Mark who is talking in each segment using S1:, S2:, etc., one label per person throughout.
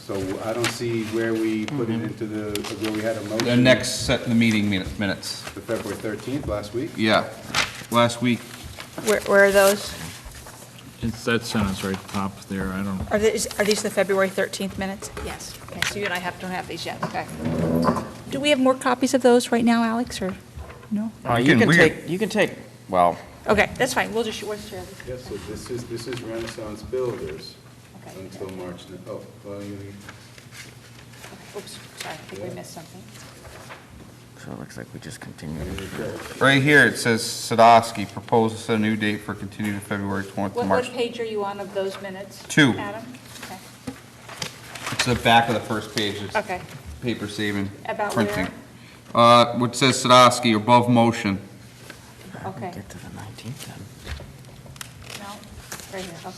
S1: So I don't see where we put it into the, where we had a motion.
S2: The next set, the meeting minute- minutes.
S1: The February 13th, last week.
S2: Yeah, last week,
S3: Where, where are those?
S4: It's, that sentence right top there, I don't,
S3: Are these, are these the February 13th minutes?
S5: Yes. Okay, so you and I have, don't have these yet, okay.
S3: Do we have more copies of those right now, Alex, or no?
S6: Uh,
S2: You
S6: You
S2: can-
S6: can
S2: we can-
S6: take, you can take, well,
S3: Okay, that's fine, we'll just, we'll share them.
S1: Yes, so this is, this is Renaissance Builders
S5: Okay.
S1: until March, ni- oh, well, you,
S5: Okay. Oops, sorry, I think we missed something.
S6: so it looks like we just continued.
S2: right here, it says Sadowski proposes a new date for continued February 20th to
S5: What, what
S2: March.
S5: page are you on of those minutes?
S2: Two.
S5: Adam? Okay.
S2: It's the back of the first page, it's
S5: Okay,
S2: paper saving,
S5: About
S2: printing. Uh, what says Sadowski, above motion.
S5: Okay.
S6: Get to the 19th then.
S5: no, right here, okay.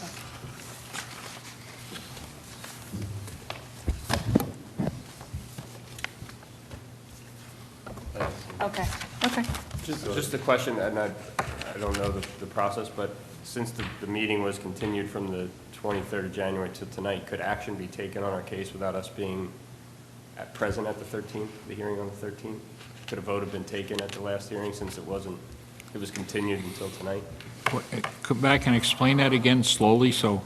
S5: Okay,
S3: Okay.
S7: Just, just a question, and I, I don't know the, the process, but since the, the meeting was continued from the 23rd of January to tonight, could action be taken on our case without us being at present at the 13th, the hearing on the 13th? Could a vote have been taken at the last hearing since it wasn't, it was continued until tonight?
S4: what- eh, come back and explain that again slowly, so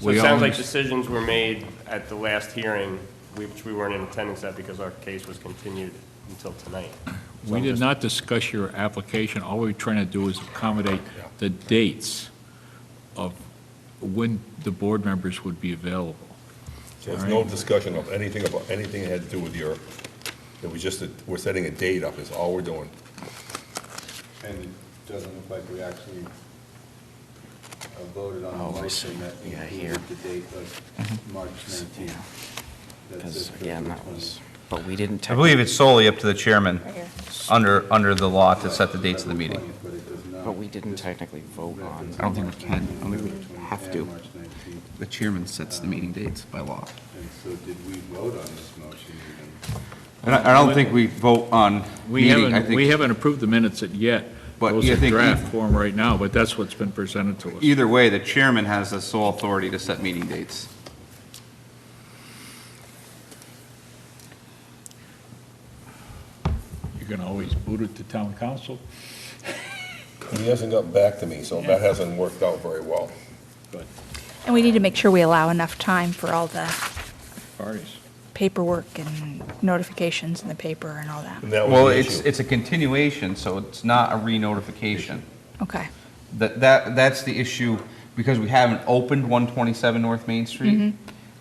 S7: So
S4: we
S7: it
S4: all...
S7: sounds like
S4: understand.
S7: decisions were made at the last hearing, we- which we weren't in attendance at because our case was continued until tonight. So
S4: We
S7: I'm
S4: did
S7: just-
S4: not discuss your application, all we're trying to do is accommodate the dates of when the board members would be available.
S8: So there's no discussion of anything about, anything that had to do with your, it was just, that we're setting a date up, is all we're doing.
S1: and it doesn't look like we actually uh, voted on
S6: Oh,
S1: a
S6: I
S1: motion
S6: see.
S1: that
S6: Yeah,
S1: included the date
S2: Mm-hmm.
S1: of March 19th. That's
S6: Because
S1: it for
S6: again,
S1: the
S6: that
S1: 20th.
S6: was, but we didn't.
S2: I believe it's
S6: technic-
S2: solely up to the chairman,
S3: Right here.
S2: under, under the law, to set the dates of the
S1: February
S2: meeting.
S1: 20th, But it does not.
S6: But we didn't
S1: This
S6: technically vote on.
S1: references
S2: I don't think we
S1: March
S2: can. I don't think we
S1: 19th, February
S2: have
S1: 20th,
S2: to.
S1: and March 19th.
S2: The chairman sets the meeting dates by law.
S1: And so did we vote on this motion even?
S2: I don't, I don't think we vote on
S4: We
S2: meeting, I
S4: haven't, we
S2: think,
S4: haven't approved the minutes yet,
S2: But
S4: those
S2: you
S4: are
S2: think you-
S4: draft form right now, but that's what's been presented to us.
S2: either way, the chairman has the sole authority to set meeting dates.
S4: You can always boot it to town council,
S8: He hasn't gotten back to me, so that hasn't worked out very well.
S3: And we need to make sure we allow enough time for all the
S4: parties.
S3: paperwork and notifications in the paper and all that.
S8: And that was
S2: Well,
S8: the
S2: it's,
S8: issue.
S2: it's a continuation, so it's not a re-notification.
S3: Okay,
S2: That, that, that's the issue, because we haven't opened 127 North Main Street,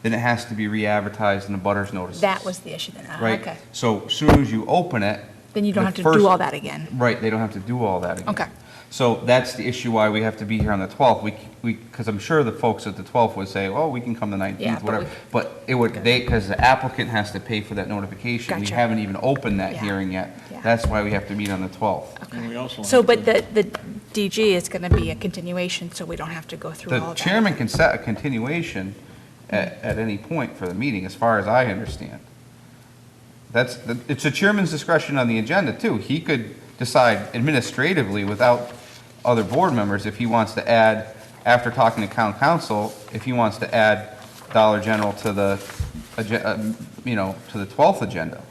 S2: then it has to be re-advertised in the butters notices.
S3: Mm-hmm. that was the issue then, ah,
S2: Right?
S3: okay.
S2: So as soon as you open it.
S3: Then you don't
S2: the
S3: have to
S2: first-
S3: do all that again.
S2: Right, they don't have to do all that again.
S3: Okay.
S2: So that's the issue why we have to be here on the 12th. We, c- we, because I'm sure the folks at the 12th would say, oh, we can come the
S3: Yeah,
S2: 19th,
S3: but
S2: whatever.
S3: we-
S2: But it would, they, because the applicant has to pay for that notification. We
S3: Gotcha.
S2: haven't even opened that
S3: Yeah.
S2: hearing yet.
S3: Yeah.
S2: That's why we have to meet on the 12th.
S4: And we also
S3: So,
S4: have
S3: but
S4: to-
S3: the, the DG is going to be a continuation, so we don't have to go through all
S2: The
S3: that.
S2: chairman can set a continuation at, at any point for the meeting, as far as I understand. That's, the- it's the chairman's discretion on the agenda, too. He could decide administratively without other board members if he wants to add, after talking to town council, if he wants to add Dollar General to the, agen- uh, you know, to the 12th agenda.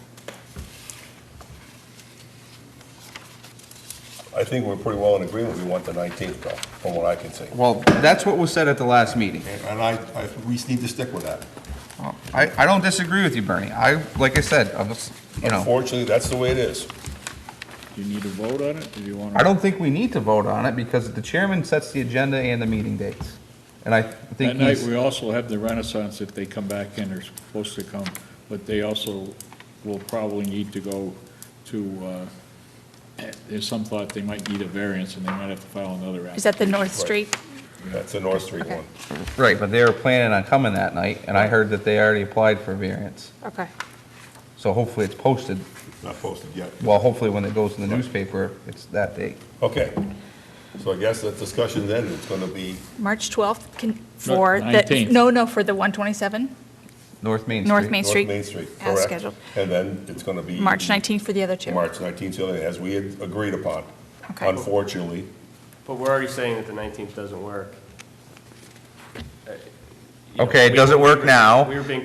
S8: I think we're pretty well in agreement, we want the 19th though, from what I can see.
S2: Well, that's what was said at the last meeting.
S8: And and I, I, we need to stick with that.
S2: I, I don't disagree with you, Bernie. I, like I said, I was, you know.
S8: Unfortunately, that's the way it is.
S4: Do you need to vote on it, do you want to?
S2: I don't think we need to vote on it because the chairman sets the agenda and the meeting dates. And I
S4: That
S2: think
S4: night,
S2: he's,
S4: we also have the Renaissance, if they come back in, they're supposed to come, but they also will probably need to go to, uh, there's some thought they might need a variance, and they might have to file another
S3: Is
S4: application.
S3: that the North Street?
S8: That's the North Street
S3: Okay.
S8: one.
S2: right, but they were planning on coming that night and I heard that they already applied for variance.
S5: okay.
S2: So hopefully it's posted,
S8: It's Not posted yet.
S2: well, hopefully when it goes in the newspaper, it's that date.
S8: Okay. So I guess that discussion then is gonna be,
S3: March 12th can, for the,
S4: 19th.
S3: no, no, for the 127,
S2: North Main Street.
S3: North Main
S8: North
S3: Street?
S8: Main Street,
S3: As
S8: correct?
S3: scheduled.
S8: And then it's gonna be.
S3: March 19th for the other two?
S8: March 19th, so as we had agreed upon.
S3: Okay.
S8: Unfortunately,
S7: But we're already saying that the 19th doesn't work. Uh, you know,
S2: Okay, it
S7: we-
S2: doesn't work
S7: we were-
S2: now.
S7: We were being